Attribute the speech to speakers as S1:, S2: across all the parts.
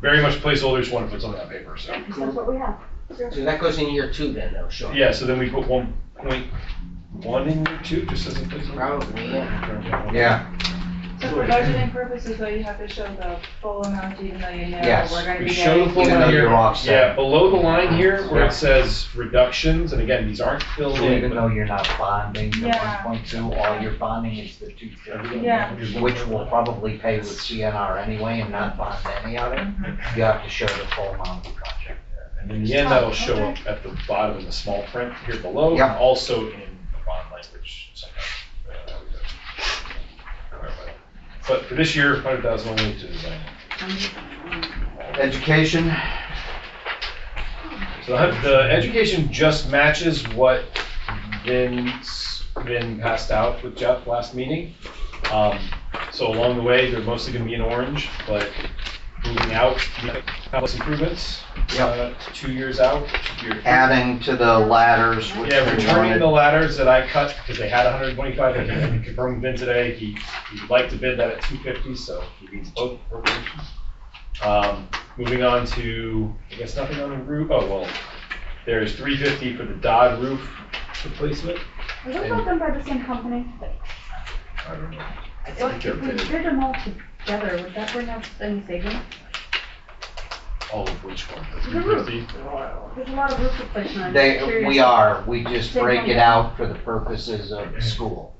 S1: very much placeholder, just want to put something on paper, so.
S2: That's what we have.
S3: So that goes in year two then, though, sure.
S1: Yeah, so then we put one point one in year two, just as a placeholder.
S3: Probably, yeah.
S4: Yeah,
S2: So for budgeting purposes, though, you have to show the full amount even though you know
S4: Yes.
S2: we're gonna
S1: We
S2: be
S1: show the
S2: getting.
S1: full
S4: even though
S1: amount
S4: you're
S1: here. Yeah,
S4: offset,
S1: below the line here where
S4: Yeah.
S1: it says reductions, and again, these aren't filled
S5: So
S1: in.
S5: even
S1: but
S5: though you're not bonding the
S2: Yeah.
S5: one point two, all you're bonding is the two fifty.
S2: Yeah.
S5: Which will probably pay with CNR anyway and not bond any of it. You have to show the full amount of the project.
S1: And in the end, that'll show up at the bottom in the small print here below, and
S5: Yeah.
S1: also in the bond language sometimes. uh, we don't clarify that. But for this year, hundred thousand only to design.
S4: education,
S1: So the, hun- the education just matches what Vin's, Vin passed out with Jeff last meeting. Um, so along the way, they're mostly gonna be in orange, but moving out, the complex improvements, uh, two years out. year-
S4: adding to the ladders, which
S1: Yeah,
S4: we
S1: returning the
S4: wanted.
S1: ladders that I cut, because they had hundred and twenty-five, and I confirmed with Vin today, he, he'd like to bid that at two fifty, so he needs both appropriations. Um, moving on to, I guess nothing on the roof, oh, well, there's three fifty for the Dodd roof replacement.
S2: Are those all done by the same company?
S1: I don't know.
S2: I thought If we did them all together, would that bring up any savings?
S1: All of which one, the
S2: The
S1: three
S2: roof.
S1: fifty?
S2: There's a lot of roof replacement. I'm just
S5: They,
S2: curious.
S5: we are, we just
S2: Same
S5: break it
S2: company.
S5: out for the purposes of school.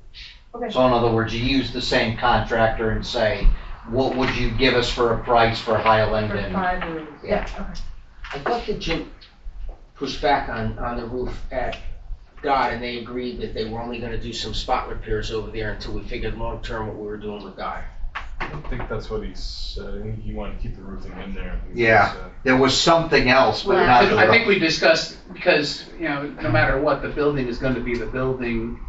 S2: Okay.
S5: So in other words, you use the same contractor and say, what would you give us for a price for Highland
S2: For
S5: and
S2: five rooms, yeah, okay.
S3: I thought that Jim pushed back on, on the roof at God, and they agreed that they were only gonna do some spot repairs over there until we figured long-term what we were doing with God.
S6: I think that's what he said. I think he wanted to keep the roofing in there.
S4: Yeah. There was something else, but not
S7: Because I think
S4: the,
S7: we discussed, because, you know, no matter what, the building is gonna be the building,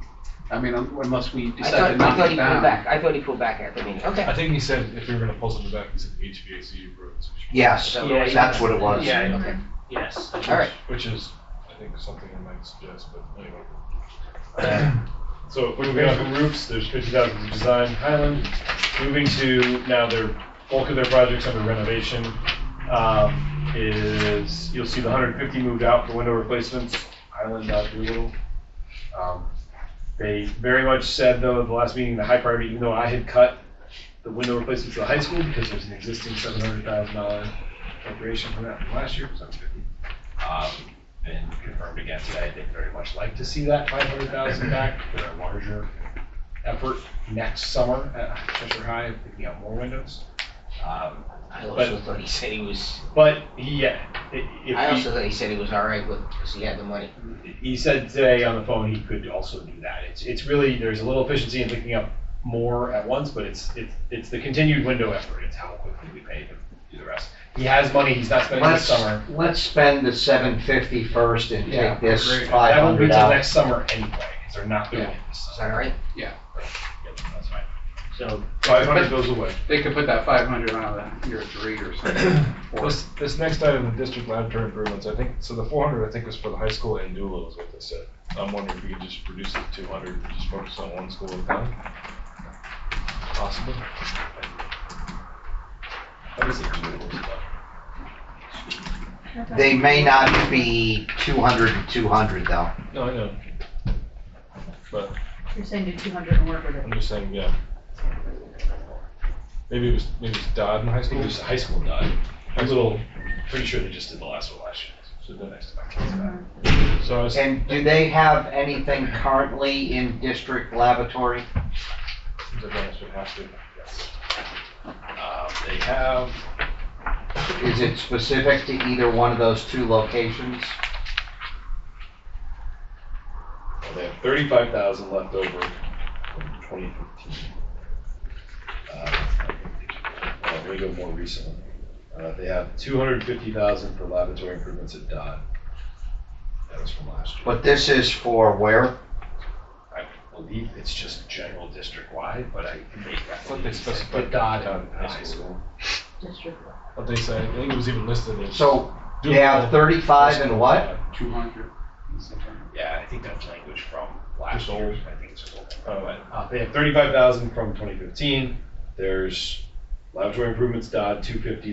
S7: I mean, un- unless we
S3: I
S7: decide to
S3: thought, I
S7: knock
S3: thought
S7: it
S3: he pulled
S7: down.
S3: back, I thought he pulled back at the meeting, okay.
S6: I think he said if we were gonna pull something back, he said HVAC roofs. which-
S4: yes,
S3: Yeah,
S4: that's what it was.
S7: Yeah,
S2: Mm-hmm.
S7: okay.
S3: Yes.
S6: which-
S3: All right,
S6: Which is, I think, something I might suggest, but anyway.
S1: So moving on from roofs, there's fifty thousand to design Highland. Moving to now their bulk of their projects under renovation um, is, you'll see the hundred and fifty moved out for window replacements, Highland, Dodge Doolittle. Um, They very much said though, at the last meeting, the high priority, even though I had cut the window replacements to the high school because there's an existing seven hundred thousand dollar appropriation for that from last year, seven fifty. Um, And confirmed again today, they'd very much like to see that five hundred thousand back for a larger effort next summer at Cheshire High, picking out more windows. Um,
S3: I also thought he said he was,
S1: But yeah, i-
S3: I
S1: if
S3: also thought he said he was all right with, because he had the money.
S1: he, he said today on the phone, he could also do that. It's, it's really, there's a little efficiency in picking up more at once, but it's, it's, it's the continued window effort. It's how quickly we pay to do the rest. He has money, he's not spending this
S4: Let's,
S1: summer.
S4: let's spend the seven fifty first and
S7: Yeah,
S4: take this
S7: agree.
S4: five
S1: That won't be
S4: hundred
S1: till
S4: out.
S1: next summer anyway, because they're not doing it this
S3: Is
S1: summer.
S3: that all right?
S1: Yeah, That's fine.
S3: So,
S1: Five hundred goes away.
S7: They could put that five hundred on the year three or something.
S6: This, this next item, the district laboratory improvements, I think, so the four hundred, I think, was for the high school and Doolittle is what they said. I'm wondering if we could just reduce it to two hundred, and just focus on one school at a time. Possible.
S1: What is it?
S4: They may not be 200 and 200 though.
S6: No, I know.
S2: You're saying do two hundred and work with it.
S6: I'm just saying, yeah. Maybe it was, maybe it's Dodd in high
S1: I think
S6: school.
S1: it was the high school done. I'm a little, pretty sure they just did the last one last year.
S6: So
S1: The
S6: the-
S1: next time I came back.
S6: So I was,
S4: And do they have anything currently in district laboratory?
S6: the bonus would have to.
S1: Um, They have,
S4: Is it specific to either one of those two locations?
S1: well, they have thirty-five thousand left over from twenty fifteen. Let me go more recently. Uh, They have two hundred and fifty thousand for laboratory improvements at Dodd. That was from last year.
S4: But this is for where?
S1: I believe it's just general district-wide, but I can make that.
S6: But they specified
S1: But Dodd
S6: Dodd
S1: and high school.
S2: District.
S6: What they say, I think it was even listed as.
S4: So they have thirty-five and what?
S7: Two hundred.
S1: Yeah, I think that's language from last
S6: Just
S1: year.
S6: old.
S1: I think it's old.
S6: Oh,
S1: But uh, they have thirty-five thousand from twenty fifteen. There's laboratory improvements, Dodd, two fifty,